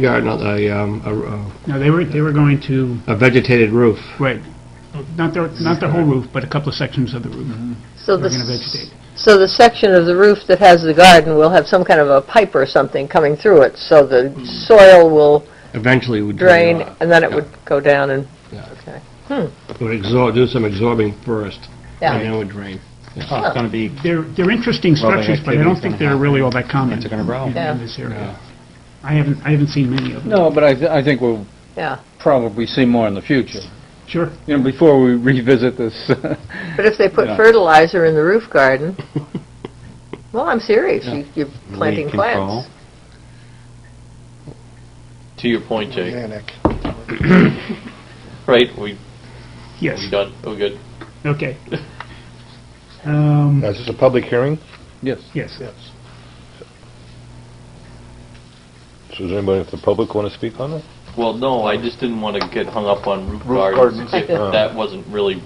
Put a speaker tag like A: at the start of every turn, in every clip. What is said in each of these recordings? A: garden, a, um, a-
B: No, they were, they were going to,
A: a vegetated roof.
B: right,
C: Hmm.
B: not the, not the whole roof, but a couple of sections of the
D: Mm-hmm.
B: roof
E: So
B: were going to
E: the,
B: vegetate.
E: so the section of the roof that has the garden will have some kind of a pipe or something coming through it, so the soil will
A: Eventually it would drain
E: drain,
A: off.
E: and then it would go down and,
A: Yeah.
E: okay,
A: It would absorb, do some absorbing first, and then
E: yeah.
A: it would drain.
D: Oh, it's going to be,
B: They're, they're interesting
D: Rubbing
B: structures, but I
D: activity's
B: don't think
D: gonna
B: they're
D: happen.
B: really all that common
D: It's gonna grow.
B: in-
E: Yeah.
B: in this area. I haven't, I haven't seen many of them.
F: No, but I, th- I think we'll
E: Yeah,
F: probably see more in the future.
B: Sure.
F: You know, before we revisit this,
E: but if they put
F: Yeah.
E: fertilizer in the roof garden, well, I'm serious, you- you're planting
D: Weed control.
E: plants.
C: To your point, Jake, right, we,
B: Yes,
C: we done, we good.
B: okay. Um,
G: Now, Is this a public hearing?
F: yes.
B: yes.
G: So does anybody from the public want to speak on it?
C: Well, no, I just didn't want to get hung up on roof
G: Roof
C: gardens.
G: gardens. Uh.
C: if That wasn't really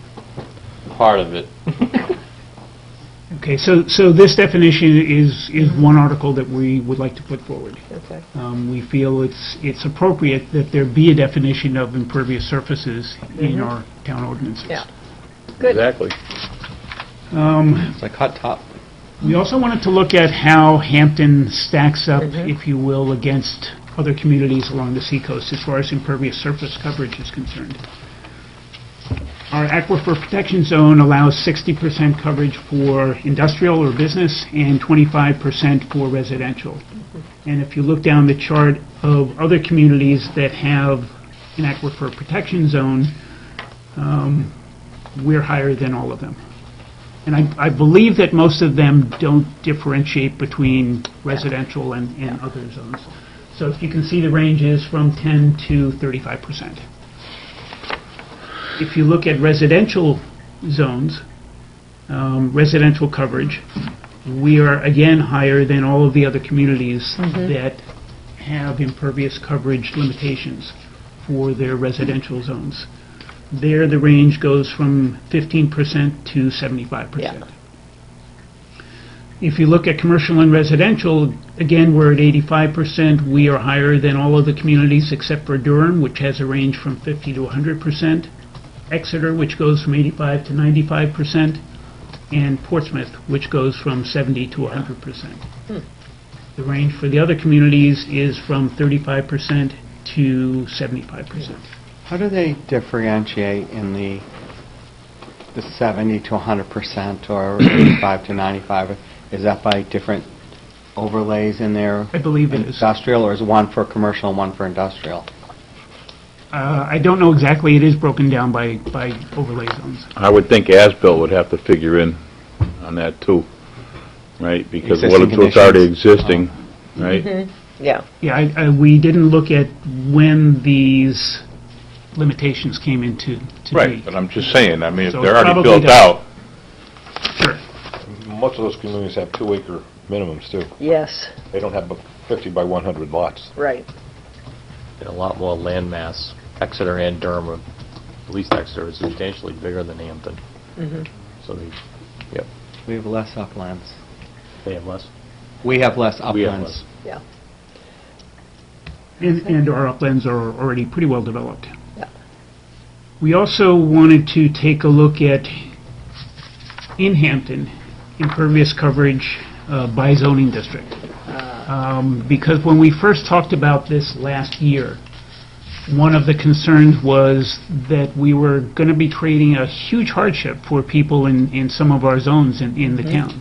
C: part of it.
B: Okay, so, so this definition is, is one article that we would like to put forward.
E: Okay.
B: Um, We feel it's, it's appropriate that there be a definition of impervious surfaces in our town ordinances.
E: Mm-hmm. Yeah. Good.
G: Exactly.
B: Um,
D: it's like hot top.
B: We also wanted to look at how Hampton stacks up, if you will, against other communities along the seacoast as far as impervious surface coverage is concerned. Our aquifer protection zone allows 60% coverage for industrial or business and 25% for residential. And if you look down the chart of other communities that have an aquifer protection zone, um, we're higher than all of them. And I, I believe that most of them don't differentiate between residential and, and other zones. So if you can see, the range is from 10 to 35 percent. If you look at residential zones, um, residential coverage, we are again higher than all of the other communities that have impervious coverage limitations for their residential zones. There, the range goes from 15% to 75%. If you look at commercial and residential, again, we're at 85%. We are higher than all of the communities except for Durham, which has a range from 50 to 100%. Exeter, which goes from 85 to 95%, and Portsmouth, which goes from 70 to 100%. The range for the other communities is from 35% to 75%.
D: How do they differentiate in the, the 70 to 100% or 85 to 95? Is that by different overlays in there?
B: I believe it is. Uh,
D: Industrial, or is one for commercial and one for industrial?
B: Uh, I don't know exactly, it is broken down by, by overlay zones.
H: I would think as-built would have to figure in on that too, right? Because what
D: Existing
H: it's what's already
D: conditions.
H: existing, right?
E: Yeah,
B: Yeah, I, I, we didn't look at when these limitations came into, to
H: Right,
B: be.
H: but I'm just saying, I mean, if
B: So
H: they're
B: it's
H: already
B: probably
H: built out,
B: Sure.
G: Most of those communities have two-acre minimums, too.
E: yes,
G: They don't have but 50 by 100 lots.
E: right.
I: and a lot more land mass. Exeter and Durham, are- at least Exeter, is substantially bigger than Hampton. So they,
D: We have less uplands.
I: they have less.
D: We have less
I: We have
D: uplands.
I: less.
B: And, and our uplands are already pretty well developed.
E: Yeah.
B: We also wanted to take a look at, in Hampton, impervious coverage uh, by zoning district. Um, Because when we first talked about this last year, one of the concerns was that we were going to be creating a huge hardship for people in, in some of our zones in, in the town.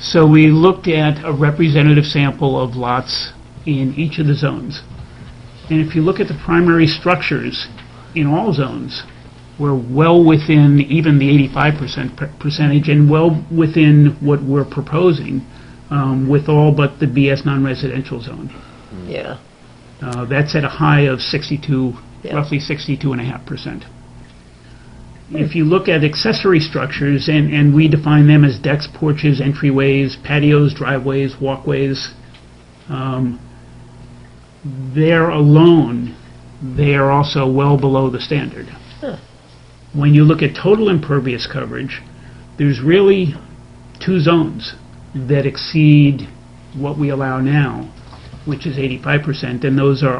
B: So we looked at a representative sample of lots in each of the zones. And if you look at the primary structures in all zones, we're well within even the 85% per- percentage and well within what we're proposing um, with all but the BS non-residential zone.
E: Yeah,
B: Uh, That's at a high of 62,
E: Yeah.
B: roughly 62.5%. If you look at accessory structures, and and we define them as decks, porches, entryways, patios, driveways, walkways, um, there alone, they are also well below the standard. When you look at total impervious coverage, there's really two zones that exceed what we allow now, which is 85%, and those are